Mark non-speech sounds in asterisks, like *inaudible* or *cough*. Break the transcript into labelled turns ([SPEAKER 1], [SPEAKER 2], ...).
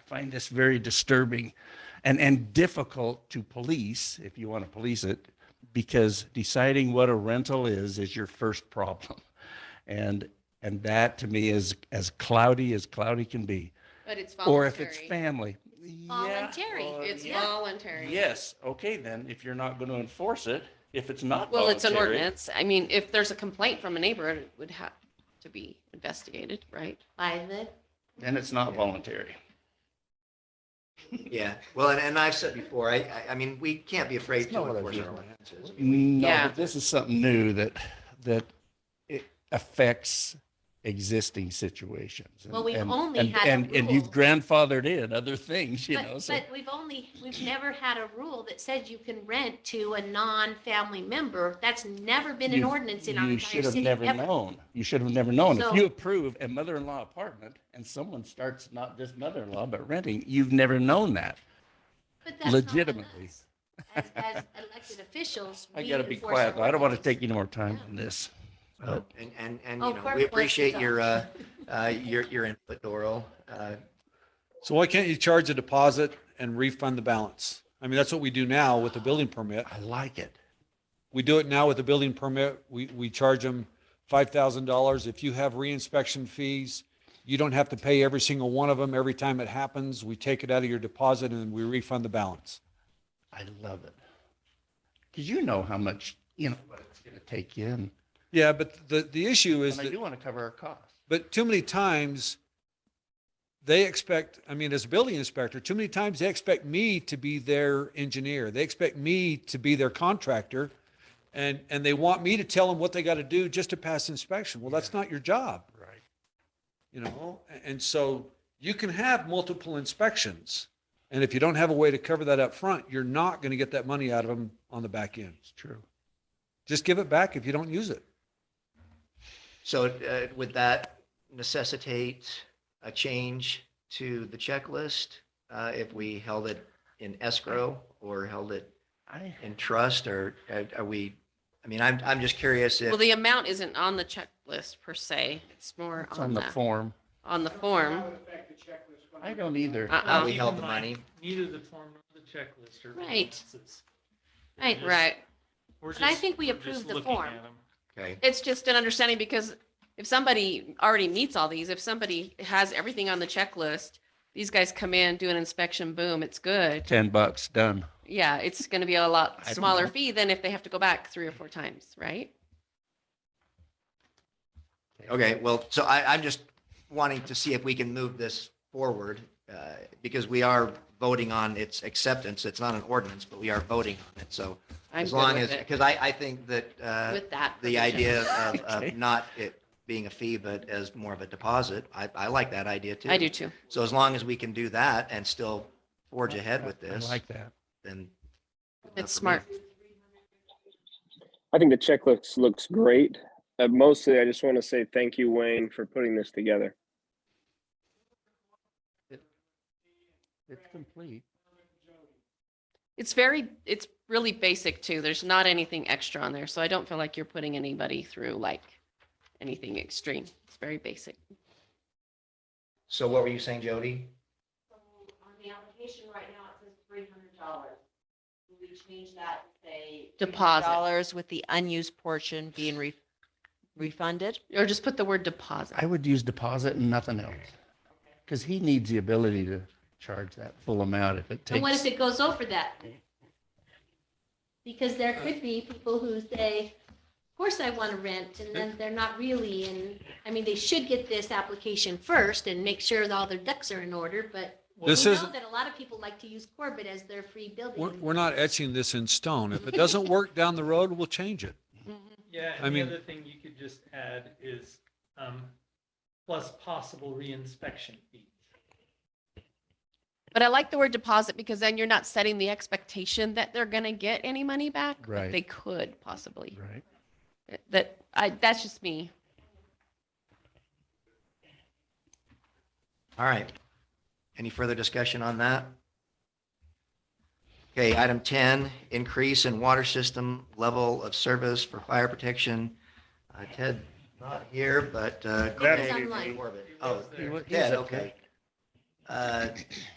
[SPEAKER 1] find this very disturbing and, and difficult to police, if you want to police it, because deciding what a rental is, is your first problem. And, and that to me is as cloudy as cloudy can be.
[SPEAKER 2] But it's
[SPEAKER 1] Or if it's
[SPEAKER 2] voluntary.
[SPEAKER 1] family. Yeah,
[SPEAKER 2] Voluntary.
[SPEAKER 1] or-
[SPEAKER 2] It's
[SPEAKER 1] yeah.
[SPEAKER 2] voluntary.
[SPEAKER 1] Yes, okay, then, if you're not going to enforce it, if it's not
[SPEAKER 2] Well, it's an
[SPEAKER 1] voluntary.
[SPEAKER 2] ordinance. I mean, if there's a complaint from a neighbor, it would have to be investigated, right?
[SPEAKER 3] By the,
[SPEAKER 1] Then it's not voluntary.
[SPEAKER 4] Yeah, well, and, and I've said before, I, I, I mean, we can't be afraid
[SPEAKER 1] It's not
[SPEAKER 4] to
[SPEAKER 1] what I
[SPEAKER 4] enforce
[SPEAKER 1] do.
[SPEAKER 4] our ordinances.
[SPEAKER 1] No,
[SPEAKER 2] Yeah.
[SPEAKER 1] but this is something new that, that it affects existing situations. and-
[SPEAKER 3] Well, we've
[SPEAKER 1] and-
[SPEAKER 3] only
[SPEAKER 1] and-
[SPEAKER 3] had a
[SPEAKER 1] And, and you've
[SPEAKER 3] rule.
[SPEAKER 1] grandfathered in other things, you know,
[SPEAKER 3] but,
[SPEAKER 1] so.
[SPEAKER 3] but we've only, we've never had a rule that said you can rent to a non-family member. That's never been an
[SPEAKER 1] you've-
[SPEAKER 3] ordinance in our
[SPEAKER 1] You
[SPEAKER 3] entire
[SPEAKER 1] should have
[SPEAKER 3] city.
[SPEAKER 1] never
[SPEAKER 3] ever.
[SPEAKER 1] known. You should have never known. If
[SPEAKER 3] So-
[SPEAKER 1] you approve a mother-in-law apartment and someone starts not just mother-in-law, but renting, you've never known that.
[SPEAKER 3] But that's not on
[SPEAKER 1] legitimately.
[SPEAKER 3] us. As, as elected officials.
[SPEAKER 1] *laughs* I
[SPEAKER 3] we
[SPEAKER 1] gotta be
[SPEAKER 3] enforce our
[SPEAKER 1] quiet. though. I don't want to
[SPEAKER 3] ordinance.
[SPEAKER 1] take any more time on this.
[SPEAKER 4] Uh, And, and, and,
[SPEAKER 3] Oh,
[SPEAKER 4] you know,
[SPEAKER 3] Clark
[SPEAKER 4] we
[SPEAKER 3] wants to
[SPEAKER 4] appreciate
[SPEAKER 3] talk. *laughs*
[SPEAKER 4] your, uh, uh, your, your input, Doral. Uh,
[SPEAKER 5] So why can't you charge a deposit and refund the balance? I mean, that's what we do now with the building permit.
[SPEAKER 1] I like it.
[SPEAKER 5] We do it now with the building permit. We, we charge them five thousand dollars. If you have reinspection fees, you don't have to pay every single one of them every time it happens. We take it out of your deposit and we refund the balance.
[SPEAKER 1] I love it. Cause you know how much, you know, what it's gonna take you in.
[SPEAKER 5] Yeah, but the, the issue is
[SPEAKER 1] And I
[SPEAKER 5] that,
[SPEAKER 1] do want to cover our costs.
[SPEAKER 5] but too many times they expect, I mean, as a building inspector, too many times they expect me to be their engineer. They expect me to be their contractor. And, and they want me to tell them what they got to do just to pass inspection. Well, that's not your job.
[SPEAKER 1] Right.
[SPEAKER 5] you know a- and so you can have multiple inspections and if you don't have a way to cover that up front you're not going to get that money out of them on the back end
[SPEAKER 1] It's true.
[SPEAKER 5] just give it back if you don't use it
[SPEAKER 4] So, uh, would that necessitate a change to the checklist? Uh, if we held it in escrow or held it
[SPEAKER 1] I,
[SPEAKER 4] in trust or are- are we, I mean, I'm, I'm just curious if.
[SPEAKER 2] Well, the amount isn't on the checklist per se. It's more
[SPEAKER 1] it's
[SPEAKER 2] on
[SPEAKER 1] on the
[SPEAKER 2] the,
[SPEAKER 1] form.
[SPEAKER 2] on the form.
[SPEAKER 1] I don't either.
[SPEAKER 4] how
[SPEAKER 2] Uh-uh.
[SPEAKER 3] Um,
[SPEAKER 4] We
[SPEAKER 6] Keep
[SPEAKER 4] held
[SPEAKER 6] in
[SPEAKER 4] the
[SPEAKER 6] mind,
[SPEAKER 4] money.
[SPEAKER 6] Neither the form nor the checklist are.
[SPEAKER 2] Right.
[SPEAKER 6] ordinances.
[SPEAKER 2] Right,
[SPEAKER 6] Yes.
[SPEAKER 2] right.
[SPEAKER 6] We're
[SPEAKER 3] But I
[SPEAKER 6] just-
[SPEAKER 3] think we
[SPEAKER 6] we're just
[SPEAKER 3] approved the
[SPEAKER 6] looking
[SPEAKER 3] form.
[SPEAKER 6] at 'em.
[SPEAKER 4] Okay,
[SPEAKER 2] It's just an understanding because if somebody already meets all these, if somebody has everything on the checklist, these guys come in, do an inspection, boom, it's good.
[SPEAKER 1] Ten bucks, done.
[SPEAKER 2] Yeah, it's going to be a lot
[SPEAKER 1] I don't
[SPEAKER 2] smaller
[SPEAKER 1] know.
[SPEAKER 2] fee than if they have to go back three or four times, right?
[SPEAKER 4] okay, well, so I, I'm just wanting to see if we can move this forward, uh, because we are voting on its acceptance. It's not an ordinance, but we are voting on it, so
[SPEAKER 2] I'm
[SPEAKER 4] as
[SPEAKER 2] good
[SPEAKER 4] long
[SPEAKER 2] with
[SPEAKER 4] as,
[SPEAKER 2] it.
[SPEAKER 4] because I, I think that, uh,
[SPEAKER 2] With that.
[SPEAKER 4] the
[SPEAKER 2] provision.
[SPEAKER 4] idea of,
[SPEAKER 2] *laughs*
[SPEAKER 1] Okay.
[SPEAKER 4] of not it being a fee, but as more of a deposit, I, I like that idea too.
[SPEAKER 2] I do too.
[SPEAKER 4] So as long as we can do that and still forge ahead with this,
[SPEAKER 1] I like that.
[SPEAKER 4] then.
[SPEAKER 2] It's smart.
[SPEAKER 7] I think the checklist looks great. Uh, mostly, I just want to say thank you, Wayne, for putting this together.
[SPEAKER 1] It's complete.
[SPEAKER 2] It's very, it's really basic too. There's not anything extra on there. So I don't feel like you're putting anybody through like anything extreme. It's very basic.
[SPEAKER 4] So what were you saying, Jody?
[SPEAKER 8] On the application right now, it says three hundred dollars. Will we change that to say?
[SPEAKER 2] Deposit.
[SPEAKER 8] Dollars with the unused portion being re- refunded?
[SPEAKER 2] Or just put the word deposit.
[SPEAKER 1] I would use deposit and nothing else. Because he needs the ability to charge that full amount if it
[SPEAKER 3] And what if
[SPEAKER 1] takes.
[SPEAKER 3] it goes over that? Because there could be people who say, of course I want to rent, and then they're not really, and, I mean, they should get this application first and make sure that all their ducks are in order, but
[SPEAKER 6] Well,
[SPEAKER 3] we
[SPEAKER 5] This
[SPEAKER 3] know
[SPEAKER 5] isn't-
[SPEAKER 3] that a lot of people like to use Corbett as their free
[SPEAKER 5] we're,
[SPEAKER 3] building.
[SPEAKER 5] we're not etching this in stone if it doesn't work down the road we'll change it
[SPEAKER 6] Yeah,
[SPEAKER 5] I
[SPEAKER 6] and the
[SPEAKER 5] mean-
[SPEAKER 6] other thing you could just add is, um, plus possible reinspection fees.
[SPEAKER 2] But I like the word deposit because then you're not setting the expectation that they're going to get any money back. but
[SPEAKER 1] Right.
[SPEAKER 2] They could possibly.
[SPEAKER 1] Right.
[SPEAKER 2] That I, that's just me.
[SPEAKER 4] All right. Any further discussion on that? Okay, item ten, increase in water system level of service for fire protection. Uh, Ted, not here, but, uh.
[SPEAKER 3] That's
[SPEAKER 4] Craig
[SPEAKER 3] online.
[SPEAKER 4] Corbett. Oh,
[SPEAKER 6] It was there.
[SPEAKER 1] He wa- he's
[SPEAKER 4] Ted,
[SPEAKER 1] up there.
[SPEAKER 4] okay. Uh,